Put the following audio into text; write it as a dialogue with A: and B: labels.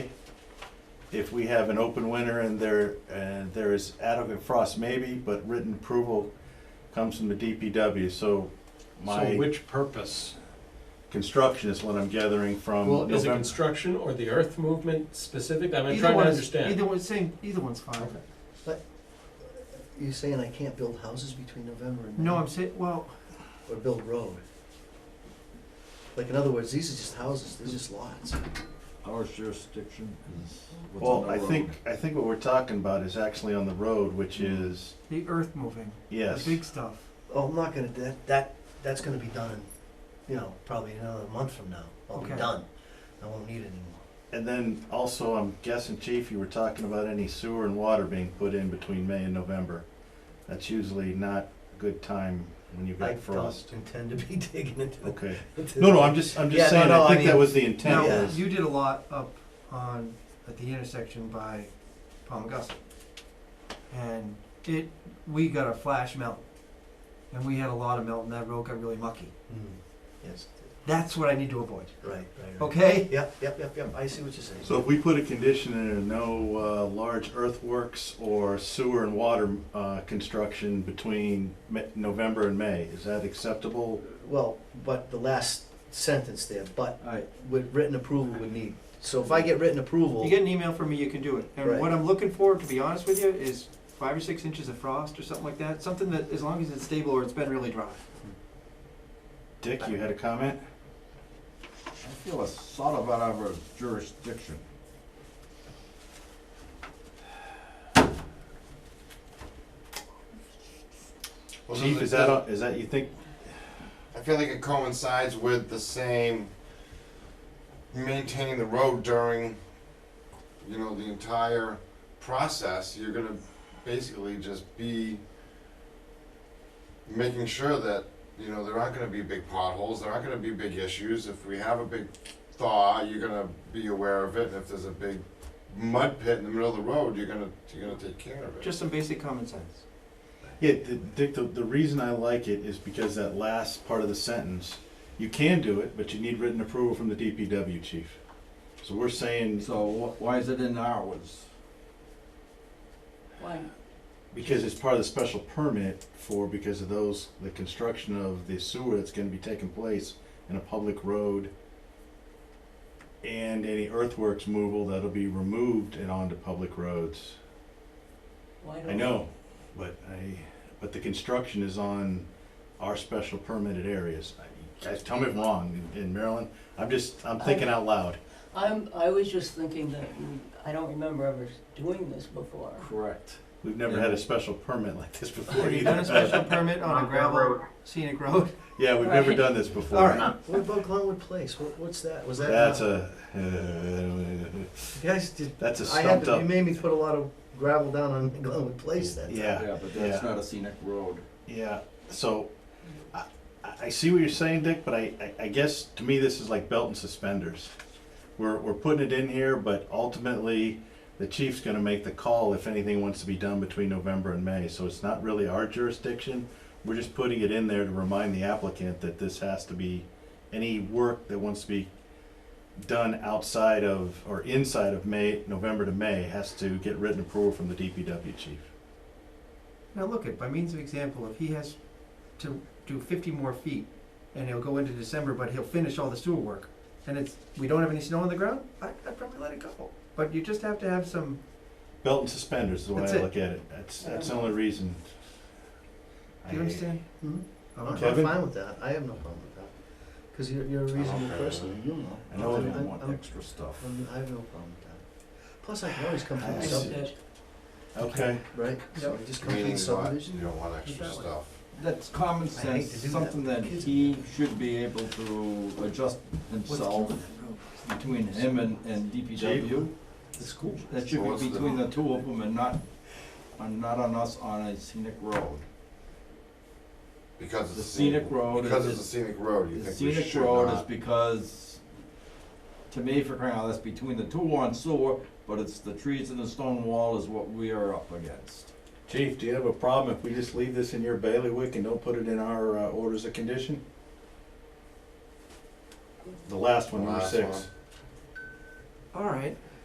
A: if we have an open winter and there, and there is adequate frost maybe, but written approval comes from the DPW, so
B: So
A: my
B: which purpose?
A: construction is what I'm gathering from
B: Well, is it
A: November.
B: construction or the earth movement specific? I mean, I'm
C: Either
B: trying to
C: one's-
B: understand.
C: Either one's same, either one's fine.
B: Okay.
D: You're saying I can't build houses between November and May?
C: No, I'm saying, well,
D: Or build road? Like, in other words, these are just houses, they're just lots.
E: Our jurisdiction is what's on
A: Well,
E: the road.
A: I think, I think what we're talking about is actually on the road, which
B: Mm-hmm.
A: is,
C: the earth moving, the
A: yes,
C: big stuff.
D: Oh, I'm not gonna, that, that, that's gonna be done, in, you know, probably another month from now. I'll be
C: Okay.
D: done. I won't need it anymore.
A: and then also, I'm guessing, Chief, you were talking about any sewer and water being put in between May and November. That's usually not a good time when you've
D: I
A: got frost.
D: don't intend to be digging into.
A: Okay,
D: into
A: no, no, I'm just, I'm
D: Yeah,
A: just
D: no,
A: saying,
D: no,
A: I
D: I
A: think that
D: mean-
A: was the intent
C: Now,
A: was,
C: you did a lot up on, at the intersection by Palm Augusta. And it, we got a flash melt. And we had a lot of melt and that road got really mucky.
D: Hmm, Yes,
C: That's what I need to avoid,
D: right, right, right.
C: okay?
D: Yep, yep, yep, yep, I see what you're saying.
A: So if we put a condition in there, no uh, large earthworks or sewer and water uh, construction between Me- November and May, is that acceptable?
D: Well, but the last sentence there, but
E: Alright,
D: with written approval would need, so if I get written approval.
C: You get an email from me, you can do it. And what
D: Right.
C: I'm looking for, to be honest with you, is five or six inches of frost or something like that. Something that, as long as it's stable or it's been really dry.
A: Dick, you had a comment?
E: I feel it's sort of out of our jurisdiction.
F: Well,
A: Chief,
F: the-
A: is that, on- is that, you think,
F: I feel like it coincides with the same maintaining the road during, you know, the entire process. You're gonna basically just be making sure that, you know, there aren't gonna be big potholes, there aren't gonna be big issues. If we have a big thaw, you're gonna be aware of it. And if there's a big mud pit in the middle of the road, you're gonna, you're gonna take care of it.
C: Just some basic common sense.
A: yeah, the- Dick, the, the reason I like it is because that last part of the sentence, you can do it, but you need written approval from the DPW chief. So we're saying,
E: So wh- why is it in ours?
A: because it's part of the special permit for, because of those, the construction of the sewer that's gonna be taking place in a public road and any earthworks removal that'll be removed and onto public roads. I know, but I, but the construction is on our special permitted areas. I- Guys, tell me if I'm wrong, in- in Maryland, I'm just, I'm thinking out loud.
G: I'm, I was just thinking that, we- I don't remember ever doing this before.
E: Correct.
A: We've never had a special permit like this before
C: Have you done a
A: either.
C: special permit on a gravel scenic road?
A: Yeah, we've never done this before.
C: All right.
D: What about Glenwood Place? What, what's that? Was that?
A: That's a, uh,
D: You guys did.
A: that's a
D: I had
A: stumped
D: to, you
A: up,
D: made me put a lot of gravel down on Glenwood Place that time.
A: yeah.
E: Yeah, but that's
A: yeah.
E: not a scenic road.
A: Yeah, so I, I I see what you're saying, Dick, but I, I, I guess to me this is like belt and suspenders. We're, we're putting it in here, but ultimately the chief's gonna make the call if anything wants to be done between November and May. So it's not really our jurisdiction. We're just putting it in there to remind the applicant that this has to be, any work that wants to be done outside of, or inside of May, November to May, has to get written approval from the DPW chief.
C: Now look at, by means of example, if he has to do fifty more feet and he'll go into December, but he'll finish all the sewer work. And it's, we don't have any snow on the ground, I, I'd probably let it go. But you just have to have some,
A: Belt and suspenders is the way
C: That's
A: I
C: it.
A: look at it. That's, that's the only reason.
C: do you
A: I-
C: understand?
D: Hmm? I'm
C: Okay.
A: Kevin?
D: fine with that. I have no problem with that. Because you're, you're a reasonable
F: Okay.
D: person.
E: You know.
A: I know
E: they
A: it.
E: don't want
D: I'm-
E: extra stuff.
D: Um, I have no problem with that. Plus, I can always come
A: I
D: from
G: I
A: see.
D: subdivision,
G: said,
A: Okay,
D: right? So I just come from
F: Meaning what? You
D: subdivision.
F: don't want extra
D: That way.
F: stuff.
E: That's
D: I
E: common
D: hate
E: sense,
D: to do that,
E: something
D: but
E: that
D: kids-
E: he should be able to adjust
D: What's killing
E: himself
D: that road?
E: between him and, and DPW.
D: The school.
E: That should
F: What's
E: be
F: the-
E: between the two of them and not, and not on us on a scenic road.
F: Because it's
E: The
F: a
E: scenic road
F: Because
E: is-
F: it's a scenic road, you
E: The
F: think we
E: scenic
F: should
E: road is
F: not.
E: because, to me, for crying out, that's between the two on sewer, but it's the trees and the stone wall is what we are up against.
A: Chief, do you have a problem if we just leave this in your bailiwick and don't put it in our uh, orders of condition? The last one,
F: The
A: number
F: last
A: six.
F: one.
C: All right,